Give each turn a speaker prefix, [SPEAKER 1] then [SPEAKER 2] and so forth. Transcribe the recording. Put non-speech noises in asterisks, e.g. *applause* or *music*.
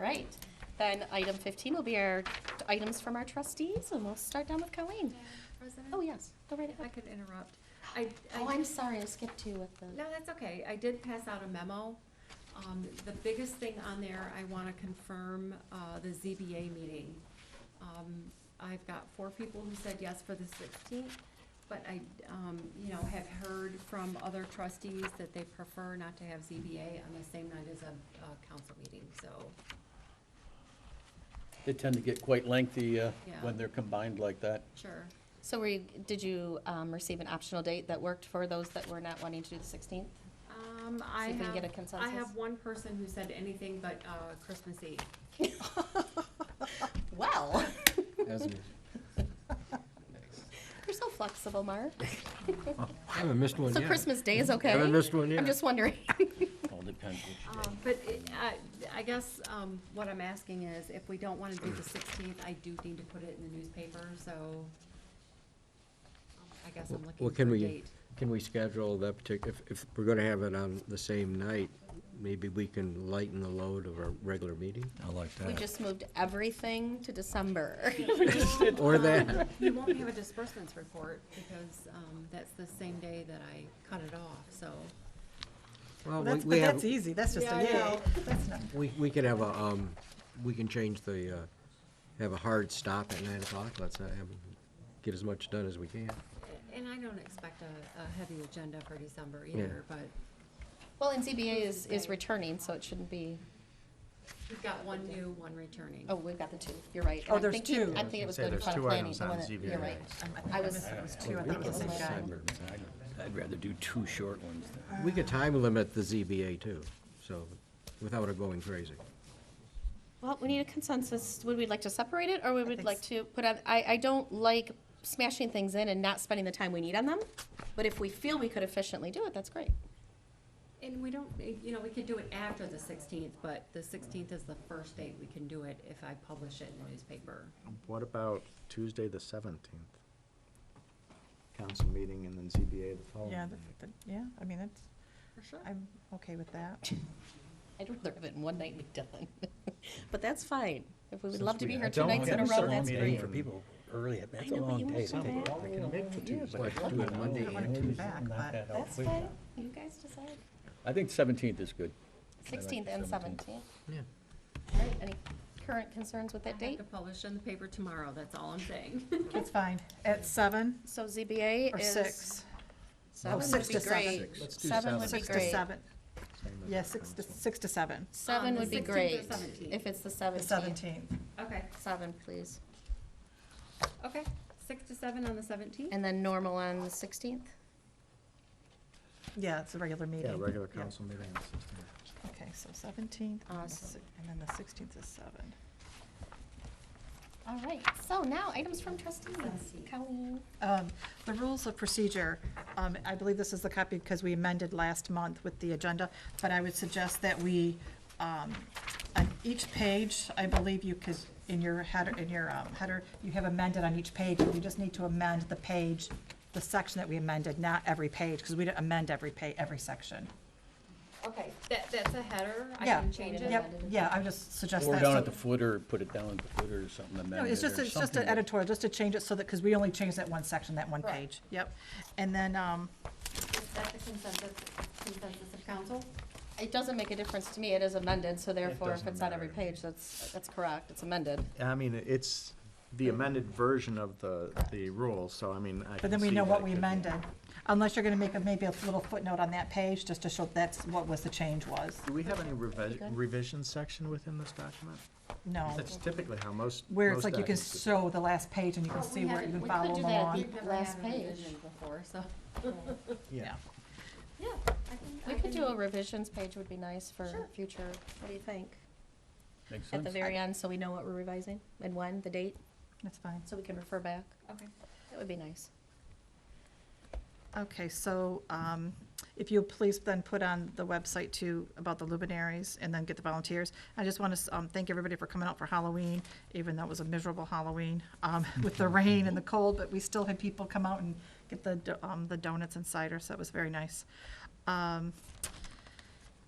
[SPEAKER 1] right. Then item 15 will be our t- items from our trustees, and we'll start down with Colleen.
[SPEAKER 2] President?
[SPEAKER 1] Oh, yes, go right
[SPEAKER 2] If I
[SPEAKER 1] ahead.
[SPEAKER 2] could interrupt. I,
[SPEAKER 1] Oh,
[SPEAKER 2] I,
[SPEAKER 1] I'm sorry, I skipped you with the,
[SPEAKER 2] no, that's okay. I did pass out a memo. Um, the biggest thing on there, I wanna confirm, uh, the ZBA meeting. Um, I've got four people who said yes for the sixteenth, but I, um, you know, have heard from other trustees that they prefer not to have ZBA on the same night as a, a council meeting, so,
[SPEAKER 3] They tend to get quite lengthy uh,
[SPEAKER 2] Yeah.
[SPEAKER 3] when they're combined like that.
[SPEAKER 2] sure.
[SPEAKER 1] so were you, did you um, receive an optional date that worked for those that were not wanting to do the
[SPEAKER 2] *laughs*
[SPEAKER 1] 16th?
[SPEAKER 2] Um, I
[SPEAKER 1] See if we can
[SPEAKER 2] have,
[SPEAKER 1] get a
[SPEAKER 2] I
[SPEAKER 1] consensus.
[SPEAKER 2] have one person who said anything but, uh, Christmas Eve.
[SPEAKER 1] Well,
[SPEAKER 4] As is.
[SPEAKER 1] *laughs* you're so flexible, Mark.
[SPEAKER 4] I haven't missed one
[SPEAKER 1] So
[SPEAKER 4] yet.
[SPEAKER 1] Christmas Day is okay?
[SPEAKER 4] Haven't missed one
[SPEAKER 1] I'm
[SPEAKER 4] yet.
[SPEAKER 1] just wondering. *laughs*
[SPEAKER 3] All depends which day.
[SPEAKER 2] Um, But it- I, I guess um, what I'm asking is, if we don't want to do the sixteenth, I do need to put it in the newspaper, so um, I guess I'm looking
[SPEAKER 4] Well,
[SPEAKER 2] for
[SPEAKER 4] can
[SPEAKER 2] a
[SPEAKER 4] we,
[SPEAKER 2] date.
[SPEAKER 4] can we schedule that particular, if, if we're gonna have it on the same night, maybe we can lighten the load of our regular meeting?
[SPEAKER 5] I like
[SPEAKER 1] We
[SPEAKER 5] that.
[SPEAKER 1] just moved everything to December.
[SPEAKER 2] *laughs*
[SPEAKER 4] Or that,
[SPEAKER 2] Um, You won't have a disbursements report, because um, that's the same day that I cut it off, so.
[SPEAKER 4] well, we-
[SPEAKER 6] That's,
[SPEAKER 4] we
[SPEAKER 6] but
[SPEAKER 4] have,
[SPEAKER 6] that's easy, that's just a yay. That's not-
[SPEAKER 4] we, we can have a, um, we can change the, uh, have a hard stop at nine o'clock, let's not have, get as much done as we can.
[SPEAKER 2] And I don't expect a, a heavy agenda for December either, but
[SPEAKER 1] Well, and ZBA is, is returning, so it shouldn't be,
[SPEAKER 2] we've got one new, one returning.
[SPEAKER 1] oh, we've got the two, you're right. And
[SPEAKER 6] Oh,
[SPEAKER 1] I'm
[SPEAKER 6] there's
[SPEAKER 1] thinking-
[SPEAKER 6] two.
[SPEAKER 1] I'm thinking it was
[SPEAKER 5] Say
[SPEAKER 1] going to
[SPEAKER 5] there's
[SPEAKER 1] plan
[SPEAKER 5] two
[SPEAKER 1] planning.
[SPEAKER 5] items
[SPEAKER 1] I
[SPEAKER 5] on
[SPEAKER 1] wanna-
[SPEAKER 5] ZBA.
[SPEAKER 1] You're right.
[SPEAKER 6] Um, I think
[SPEAKER 1] I
[SPEAKER 6] I
[SPEAKER 1] was-
[SPEAKER 6] missed, it was two, I think it was the same guy.
[SPEAKER 3] I'd rather do two short ones than.
[SPEAKER 4] We could time limit the ZBA too, so, without it going crazy.
[SPEAKER 1] Well, we need a consensus. Would we like to separate it, or we would
[SPEAKER 6] think
[SPEAKER 1] like to put on, I, I don't like smashing things in and not spending the time we need on them, but if we feel we could efficiently do it, that's great.
[SPEAKER 2] And we don't, eh, you know, we could do it after the sixteenth, but the sixteenth is the first date we can do it if I publish it in the newspaper.
[SPEAKER 5] What about Tuesday, the seventeenth? Council meeting and then ZBA the following.
[SPEAKER 6] Yeah,
[SPEAKER 5] day.
[SPEAKER 6] the- the- yeah, I mean, it's,
[SPEAKER 2] For sure.
[SPEAKER 6] I'm okay with that.
[SPEAKER 1] I'd rather have it in one night and be done, *laughs* but that's fine. If we would love to
[SPEAKER 5] we
[SPEAKER 1] be here
[SPEAKER 5] had
[SPEAKER 1] two
[SPEAKER 5] that
[SPEAKER 1] nights in a
[SPEAKER 5] one
[SPEAKER 1] row,
[SPEAKER 5] circle
[SPEAKER 1] that's
[SPEAKER 5] meeting
[SPEAKER 1] great.
[SPEAKER 5] for people
[SPEAKER 3] early,
[SPEAKER 1] I know, but you want to go back.
[SPEAKER 4] do it Monday
[SPEAKER 6] I want to come back, but
[SPEAKER 1] That's fine. You guys decide.
[SPEAKER 3] I think seventeenth is good.
[SPEAKER 1] Sixteenth and
[SPEAKER 3] 17th.
[SPEAKER 1] seventeenth.
[SPEAKER 4] Yeah.
[SPEAKER 1] All right, any current concerns with that
[SPEAKER 2] I have
[SPEAKER 1] date?
[SPEAKER 2] to publish in the paper tomorrow, that's all I'm saying.
[SPEAKER 6] it's fine. At seven
[SPEAKER 1] So ZBA
[SPEAKER 6] or
[SPEAKER 1] is.
[SPEAKER 6] six,
[SPEAKER 1] Seven
[SPEAKER 6] Oh,
[SPEAKER 1] would
[SPEAKER 6] six
[SPEAKER 1] be
[SPEAKER 6] to seven.
[SPEAKER 1] great.
[SPEAKER 5] Let's do
[SPEAKER 1] Seven would be
[SPEAKER 6] six to
[SPEAKER 1] great.
[SPEAKER 6] seven. Yeah, six to, six to seven,
[SPEAKER 1] *laughs* Seven
[SPEAKER 2] Um,
[SPEAKER 1] would be
[SPEAKER 2] 16th or
[SPEAKER 1] great,
[SPEAKER 2] 17th?
[SPEAKER 1] if it's the
[SPEAKER 6] the
[SPEAKER 1] seventeenth.
[SPEAKER 6] seventeenth.
[SPEAKER 2] Okay,
[SPEAKER 1] Seven, please.
[SPEAKER 2] okay, six to seven on the seventeenth?
[SPEAKER 1] And then normal on the sixteenth?
[SPEAKER 6] Yeah, it's a regular meeting.
[SPEAKER 5] Yeah, regular
[SPEAKER 6] Yeah.
[SPEAKER 5] council meeting on the sixteenth.
[SPEAKER 6] Okay, so seventeenth,
[SPEAKER 1] Uh,
[SPEAKER 6] and
[SPEAKER 1] s-
[SPEAKER 6] then the sixteenth is seven.
[SPEAKER 1] All right, so now items from trustees. Colleen?
[SPEAKER 6] Um, The rules of procedure, um, I believe this is the copy because we amended last month with the agenda, but I would suggest that we, um, on each page, I believe you, because in your header, in your um, header, you have amended on each page, you just need to amend the page, the section that we amended, not every page, because we didn't amend every pa, every section.
[SPEAKER 2] Okay, that, that's a header, I
[SPEAKER 6] Yeah.
[SPEAKER 2] can change it.
[SPEAKER 6] Yep, yeah, I would just suggest that.
[SPEAKER 3] Or down
[SPEAKER 6] so-
[SPEAKER 3] at the footer, put it down at the footer or something, amend it
[SPEAKER 6] No, it's just,
[SPEAKER 3] or
[SPEAKER 6] it's just
[SPEAKER 3] something
[SPEAKER 6] an
[SPEAKER 3] that-
[SPEAKER 6] editorial, just to change it so that, because we only changed that one section, that one
[SPEAKER 2] Right.
[SPEAKER 6] page, yep. And then, um,
[SPEAKER 2] Is that the consensus, consensus of council?
[SPEAKER 1] It doesn't make a difference to me, it is amended, so therefore if
[SPEAKER 5] doesn't
[SPEAKER 1] it's on every
[SPEAKER 5] matter.
[SPEAKER 1] page, that's, that's correct, it's amended.
[SPEAKER 5] I mean, it's the amended version of the, the rule, so I mean, I
[SPEAKER 6] But then we know what we amended, unless you're gonna make a, maybe a little footnote on that page, just to show that's what was the change was.
[SPEAKER 5] Do we have any revision section within this document?
[SPEAKER 6] No,
[SPEAKER 5] That's typically how most.
[SPEAKER 6] where it's like you can
[SPEAKER 5] show.
[SPEAKER 6] show the last page and you can see where you can follow
[SPEAKER 1] do
[SPEAKER 6] them
[SPEAKER 1] that.
[SPEAKER 6] along.
[SPEAKER 1] We've never Last had a page. revision
[SPEAKER 2] Before, so.
[SPEAKER 6] Yeah,
[SPEAKER 2] Yeah.
[SPEAKER 1] We could do a revisions page would be nice for future, what do you think?
[SPEAKER 3] Makes
[SPEAKER 1] At the
[SPEAKER 3] sense.
[SPEAKER 1] very end, so we know what we're revising and when, the date,
[SPEAKER 6] that's fine.
[SPEAKER 1] so we can refer back.
[SPEAKER 2] Okay.
[SPEAKER 1] That would be nice.
[SPEAKER 6] Okay, so, um, if you please then put on the website too, about the luminaries, and then get the volunteers. I just wanna, s- um, thank everybody for coming out for Halloween, even though it was a miserable Halloween, um, *laughs* with the rain and the cold, but we still had people come out and get the, do- um, the donuts and cider, so it was very nice. Um,